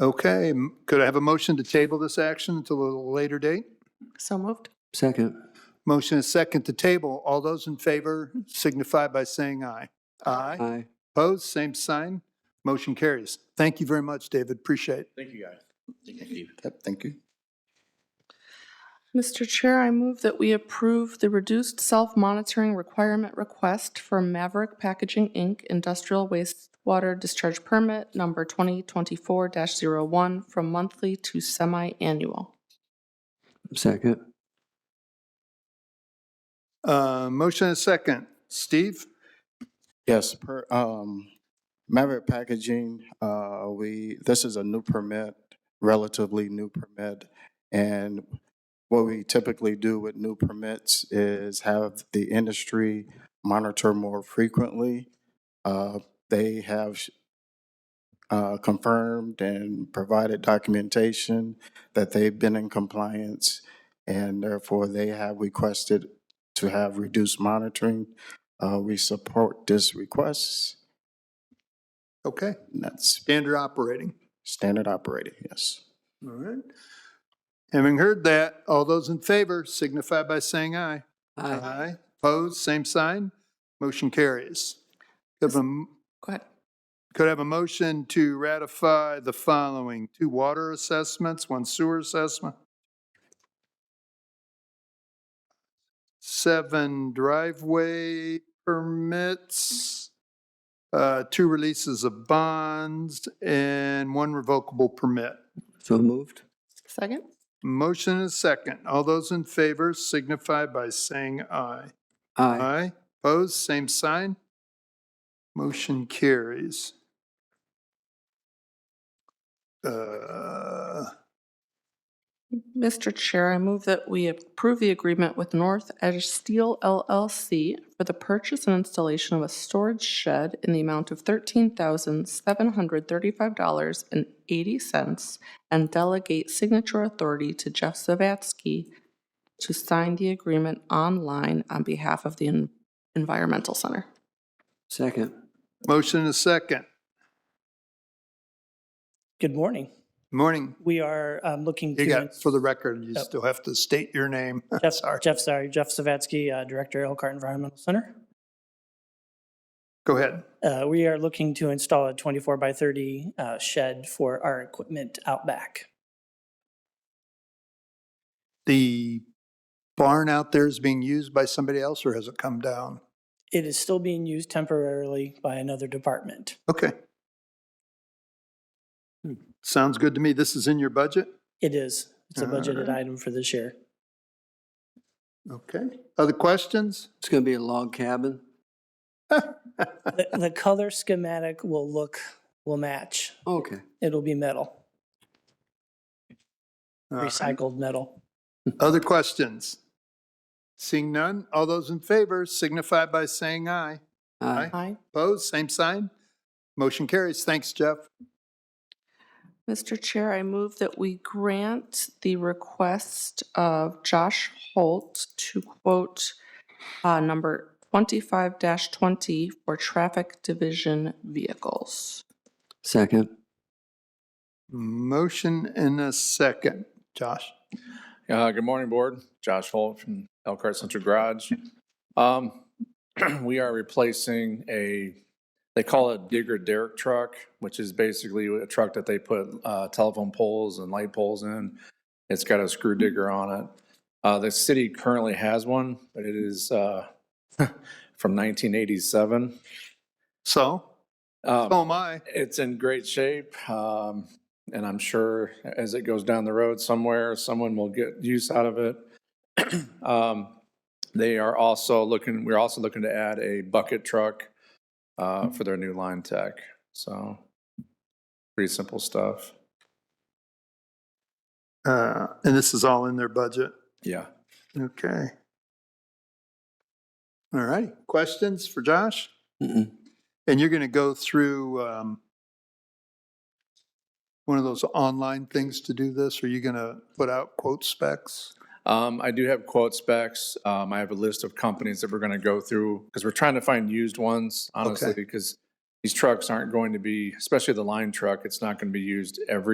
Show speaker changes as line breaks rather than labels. Okay, m- could I have a motion to table this action until a later date?
So moved.
Second.
Motion is second to table. All those in favor signify by saying aye. Aye.
Aye.
Opposed, same sign. Motion carries. Thank you very much, David. Appreciate it.
Thank you, guys. Thank you.
Yep, thank you.
Mr. Chair, I move that we approve the reduced self-monitoring requirement request for Maverick Packaging, Inc. Industrial Wastewater Discharge Permit Number 2024-01 from monthly to semi-annual.
Second.
Uh, Motion is second. Steve?
Yes, per, um, Maverick Packaging, uh, we, this is a new permit, relatively new permit. And what we typically do with new permits is have the industry monitor more frequently. Uh, they have, uh, confirmed and provided documentation that they've been in compliance. And therefore, they have requested to have reduced monitoring. Uh, we support this request.
Okay,
And that's
standard operating.
standard operating, yes.
All right. Having heard that, all those in favor signify by saying aye. Aye. Opposed, same sign. Motion carries. Could I have a m-
Go ahead.
Could I have a motion to ratify the following? Two water assessments, one sewer assessment. Seven driveway permits, uh, two releases of bonds, and one revocable permit.
So moved.
Second?
Motion is second. All those in favor signify by saying aye.
Aye.
Aye. Opposed, same sign. Motion carries. Uh,
Mr. Chair, I move that we approve the agreement with North Edge Steel LLC for the purchase and installation of a storage shed in the amount of $13,735.80 and delegate signature authority to Jeff Zavatsky to sign the agreement online on behalf of the En- Environmental Center.
Second.
Motion is second.
Good morning.
Morning.
We are um, looking to.
You got, for the record, you
Yep.
still have to state your name.
Jeff,
Sorry.
Jeff, sorry, Jeff Savatsky, uh, Director, Elkhart Environmental Center.
Go ahead.
Uh, We are looking to install a 24 by 30 uh, shed for our equipment out back.
The barn out there is being used by somebody else or has it come down?
It is still being used temporarily by another department.
Okay.
Hmm.
Sounds good to me. This is in your budget?
It is, it's a budgeted
Alright.
item for this year.
Okay. Other questions?
It's going to be a log cabin.
The the color schematic will look, will match.
Okay.
It'll be metal,
All right.
recycled metal.
Other questions? Seeing none, all those in favor signify by saying aye. Aye.
Aye.
Opposed, same sign. Motion carries. Thanks, Jeff.
Mr. Chair, I move that we grant the request of Josh Holt to quote uh, number 25-20 for traffic division vehicles.
Second.
Motion in a second. Josh?
Uh, good morning, Board. Josh Holt from Elkhart Central Garage. Um, we are replacing a, they call it digger derrick truck, which is basically a truck that they put, uh, telephone poles and light poles in. It's got a screw digger on it. Uh, the city currently has one, but it is, uh, from nineteen eighty-seven. Um,
So, so am I.
It's in great shape, um, and I'm sure as it goes down the road somewhere, someone will get use out of it. Um, They are also looking, we're also looking to add a bucket truck uh, for their new line tech, so pretty simple stuff.
Uh, And this is all in their budget.
Yeah.
Okay. All righty. Questions for Josh?
Mm-mm.
And you're going to go through um, one of those online things to do this? Are you going to put out quote specs?
Um, I do have quote specs. Um, I have a list of companies that we're going to go through because we're trying to find used ones, honestly, because these trucks aren't going to be, especially the line truck, it's not going to be used every